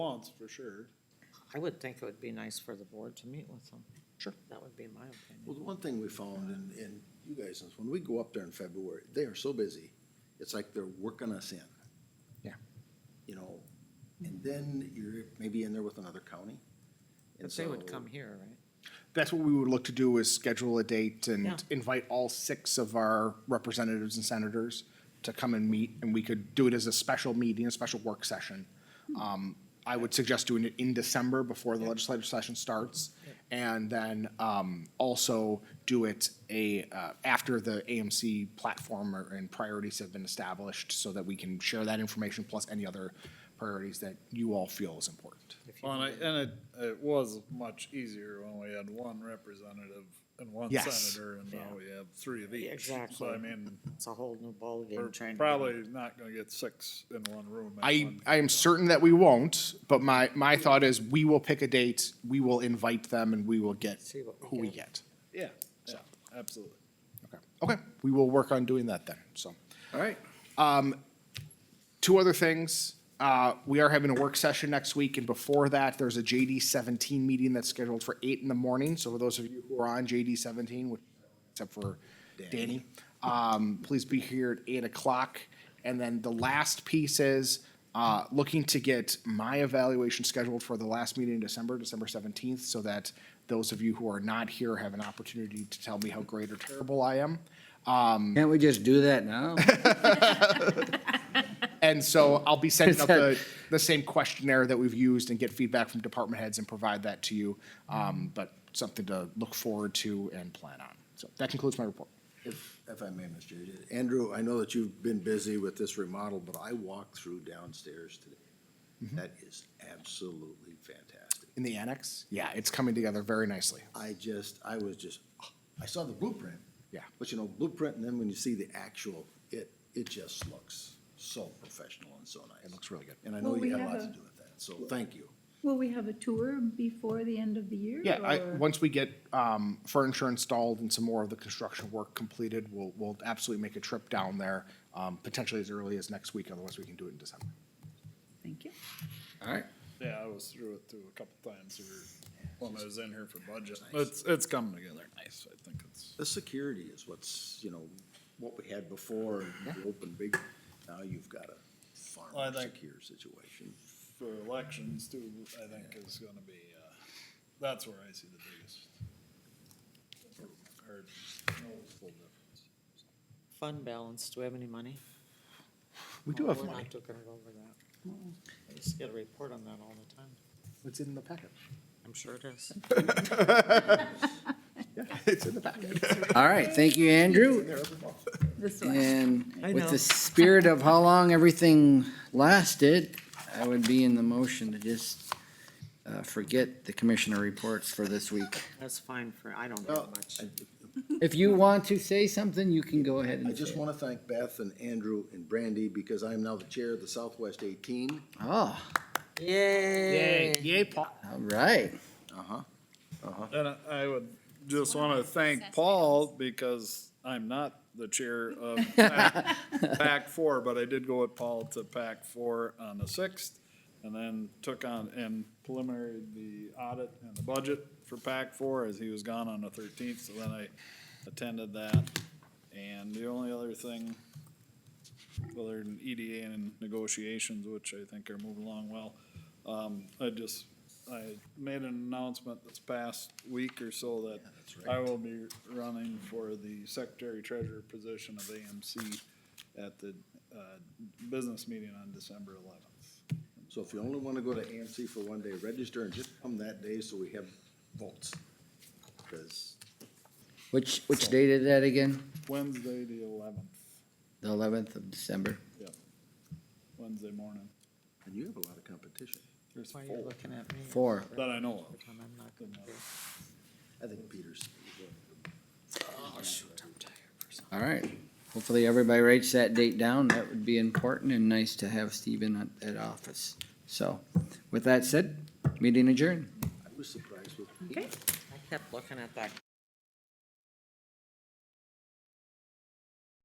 wants, for sure. I would think it would be nice for the board to meet with them. Sure. That would be my opinion. Well, the one thing we found, and, and you guys, is when we go up there in February, they are so busy, it's like they're working us in. Yeah. You know, and then you're maybe in there with another county. and But they would so- come here, right? That's what we would look to do is schedule a date Yeah. and invite all six of our representatives and senators to come and meet, and we could do it as a special meeting, a special work session. Um, I would suggest doing it in December before the legislative session starts. And then, um, also do it a, uh, after the AMC platform or, and priorities have been established so that we can share that information plus any other priorities that you all feel is important. If you Well, and I, did. and it, it was much easier when we had one representative and one Yes. senator, and now we have three of each. Exactly. So I mean, It's a whole new we're ballgame trying to. probably not gonna get six in one room. at I, one- I am certain that we won't, but my, my thought is we will pick a date, we will invite them and we will get See what we who we get. get. Yeah, yeah, absolutely. Okay, okay, we will work on doing that then, so. All right, Two other things, uh, we are having a work session next week and before that, there's a JD seventeen meeting that's scheduled for eight in the morning. So for those of you who are on JD seventeen, which, except for Danny, um, please be here at eight o'clock. And then the last piece is, uh, looking to get my evaluation scheduled for the last meeting in December, December seventeenth, so that those of you who are not here have an opportunity to tell me how great or terrible I am. Can't we just do that now? And so I'll be sending up the, the same questionnaire that we've used and get feedback from department heads and provide that to you. Um, but something to look forward to and plan on. So that concludes my report. if, if I may, Mr. Chair, Andrew, I know that you've been busy with this remodel, but I walked through downstairs today. Mm-hmm. That is absolutely fantastic. In the annex? Yeah, it's coming together very nicely. I just, I was just, I saw the blueprint. Yeah. But you know, blueprint, and then when you see the actual, it, it just looks so professional and so nice. It looks really good. And I know Well, we you had a have lot a- to do with that, so thank you. Will we have a tour before the end of the year? Yeah, I, or- once we get, um, furniture installed and some more of the construction work completed, we'll, we'll absolutely make a trip down there, um, potentially as early as next week, otherwise we can do it in December. Thank you. All right. Yeah, I was through it through a couple times here when I was in here for budget. It's, it's coming together nice. I think it's, The security is what's, you know, what we had before, and you open big, now you've got a Well, I farm think- secure situation. for elections too, I think is gonna be, uh, that's where I see the biggest. improvement, or noticeable difference. Fund balance, do we have any money? We do Oh, have we're money. Mm-hmm. not gonna go over that. I just get a report on that all the time. It's in the packet. I'm sure it is. Yeah, it's in the packet. All right, thank you, Andrew. This way. And I with know. the spirit of how long everything lasted, I would be in the motion to just uh, forget the commissioner reports for this week. That's fine for, I don't Well, have much. I, If you want to say something, you can go ahead I and just say it. wanna thank Beth and Andrew and Brandy, because I am now the chair of the Southwest eighteen. Oh, Yay! Yay, Paul. all right. Uh-huh. And I- I would just want to thank Paul because I'm not the chair of PAC PAC four, but I did go with Paul to PAC four on the sixth and then took on and preliminary the audit and the budget for PAC four as he was gone on the thirteenth. So then I attended that. And the only other thing, other than EDA and negotiations, which I think are moving along well, um, I just I made an announcement this past week or so that I will be running for the secretary treasurer position of AMC at the, uh, business meeting on December eleventh. So if you only wanna go to AMC for one day, register and just come that day so we have votes. Cause Which, which date is that again? Wednesday, the eleventh, The eleventh of December. Wednesday morning. And you have a lot of competition. There's Why are you four looking at me? Four. that I know of. When I'm not gonna be. I think Peter's. All right. Hopefully, everybody writes that date down. That would be important and nice to have Stephen at, at office. So, with that said, meeting adjourned. I was surprised with. Okay. I kept looking at that